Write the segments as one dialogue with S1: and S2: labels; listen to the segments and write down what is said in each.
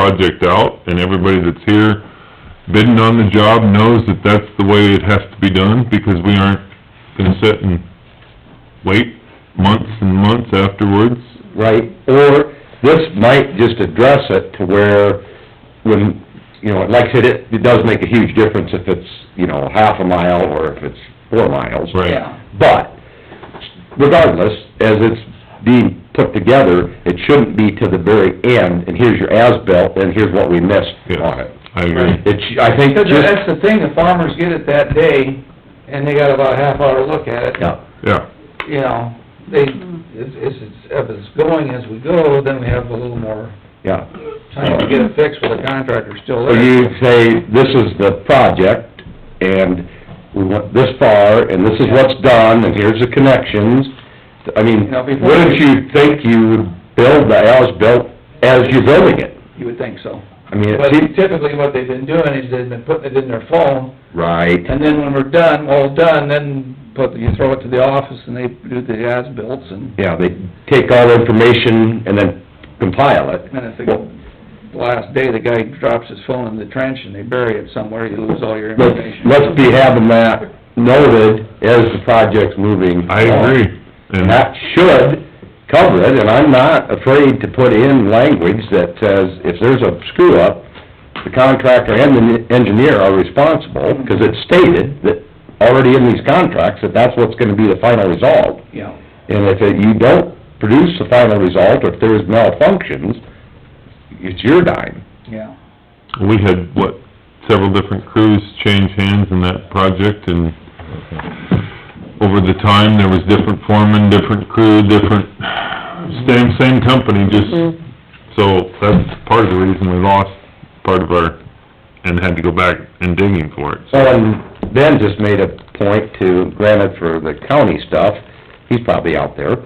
S1: project out, and everybody that's here bidding on the job knows that that's the way it has to be done, because we aren't gonna sit and wait months and months afterwards.
S2: right? Or this might just address it to where when, you know, like I said, it, it does make a huge difference if it's, you know, half a mile or if it's four miles.
S1: Right.
S3: Yeah.
S2: But regardless, as it's being put together, it shouldn't be to the very end, and here's your as-built, and here's what we missed on
S1: Yeah,
S2: it.
S1: I agree.
S2: It, sh- I think
S3: Because that's
S2: just,
S3: the thing, the farmers get it that day, and they got about a half hour to look at it.
S2: yeah,
S1: Yeah,
S3: You know, they, it's, it's, if it's going as we go, then we have a little more
S2: yeah.
S3: time to get it fixed with the contractor still
S2: So
S3: there.
S2: you say, this is the project, and we went this far, and this is what's done, and here's the connections. I mean,
S3: Now, before-
S2: wouldn't you think you would build the as-built as you're building it?
S3: You would think so.
S2: I mean,
S3: But
S2: it seems...
S3: typically what they've been doing is they've been putting it in their phone,
S2: Right,
S3: and then when we're done, all done, then put, you throw it to the office and they do the as-bills and,
S2: yeah, they take all the information and then compile it.
S3: and if the last day the guy drops his phone in the trench and they bury it somewhere, you lose all your
S2: Let's,
S3: information.
S2: let's be having that noted as the project's moving.
S1: I
S2: along.
S1: agree.
S2: And
S1: And
S2: that should cover it, and I'm not afraid to put in language that says, if there's a screw-up, the contractor and the engineer are responsible, because it's stated that, already in these contracts, that that's what's gonna be the final result.
S3: Yeah.
S2: And if it- you don't produce the final result, or if there's malfunctions, it's your dime.
S3: Yeah.
S1: we had, what, several different crews change hands in that project, and over the time, there was different foremen, different crew, different, same, same company, just, so that's part of the reason we lost part of our, and had to go back and digging for it.
S2: Well, and Ben just made a point to, granted for the county stuff, he's probably out there,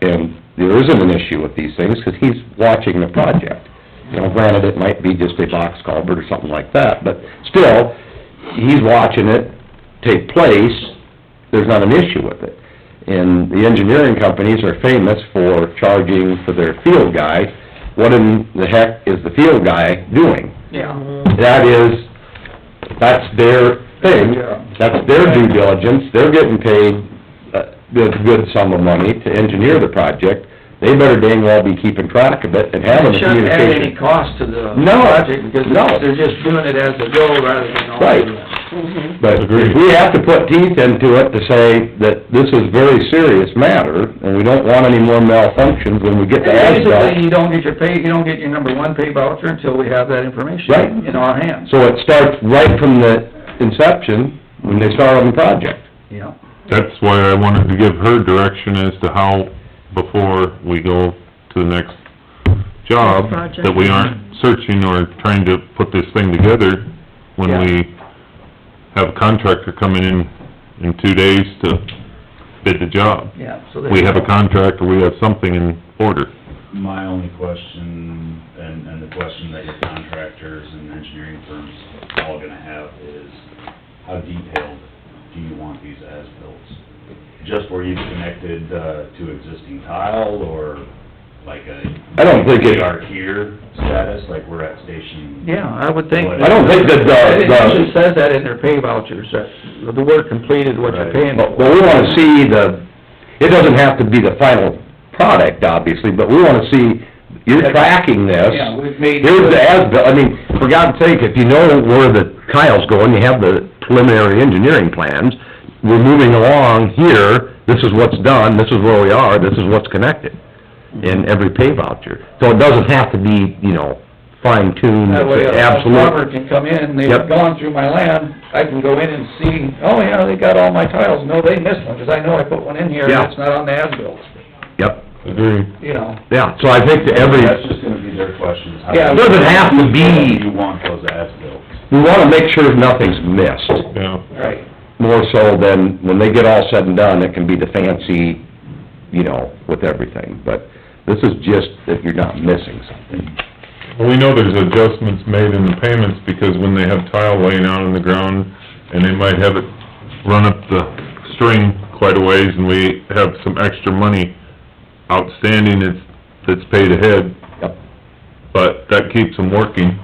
S2: and there isn't an issue with these things, 'cause he's watching the project. You know, granted, it might be just a box culvert or something like that, but still, he's watching it take place, there's not an issue with it. And the engineering companies are famous for charging for their field guy. What in the heck is the field guy doing?
S3: Yeah.
S2: that is, that's their thing, that's their due diligence, they're getting paid a good, good sum of money to engineer the project, they better dang well be keeping track of it and having the
S3: It shouldn't add any
S2: communication.
S3: cost to the
S2: No,
S3: project, because
S2: no.
S3: they're just doing it as they go rather than all
S2: Right.
S3: doing it.
S2: But
S1: Agreed.
S2: we have to put teeth into it to say that this is very serious matter, and we don't want any more malfunctions when we get
S3: And
S2: to asphalt.
S3: Basically, you don't get your pay, you don't get your number one pay voucher until we have that
S2: Right.
S3: information in our hands,
S2: So it starts right from the inception, when they start on the project.
S3: you know.
S1: That's why I wanted to give her direction as to how, before we go to the next job,
S4: Project.
S1: that we aren't searching or trying to put this thing together when
S3: Yeah.
S1: we have a contractor coming in in two days to bid the job.
S3: Yeah, so they...
S1: We have a contractor, we have something in order.
S5: My only question, and, and the question that your contractors and engineering firms are all gonna have is, how detailed do you want these as-bills? Just where you've connected, uh, to existing tile, or like a...
S2: I don't think it-
S5: We are here status, like we're at station...
S3: Yeah, I would think...
S5: I don't
S2: think that the-
S3: It usually says that in their pay vouchers, that the work completed, what you're
S5: Right.
S3: paying
S2: But
S3: for.
S2: but we wanna see the, it doesn't have to be the final product, obviously, but we wanna see, you're tracking this.
S3: Yeah, we've made...
S2: Here's the as-built, I mean, for God's sake, if you know where the tile's going, you have the preliminary engineering plans, we're moving along here, this is what's done, this is where we are, this is what's connected in every pay voucher. So it doesn't have to be, you know, fine-tuned,
S3: That way, uh, a
S2: absolute.
S3: farmer can come in,
S2: Yep.
S3: they've gone through my land, I can go in and see, oh, yeah, they got all my tiles, no, they missed one, 'cause I know I put one in here,
S2: Yeah.
S3: and it's not on the as-built,
S2: Yep,
S1: Agree.
S3: you know.
S2: yeah, so I think that every,
S5: That's just gonna be their questions. How
S3: Yeah,
S2: it doesn't have to be,
S5: You want those as-bills.
S2: we wanna make sure nothing's missed.
S1: Yeah.
S3: Right.
S2: more so than, when they get all said and done, it can be the fancy, you know, with everything, but this is just that you're not missing something.
S1: Well, we know there's adjustments made in the payments, because when they have tile laying out on the ground, and they might have it run up the string quite a ways, and we have some extra money outstanding that's, that's paid ahead,
S2: Yep.
S1: but that keeps them working.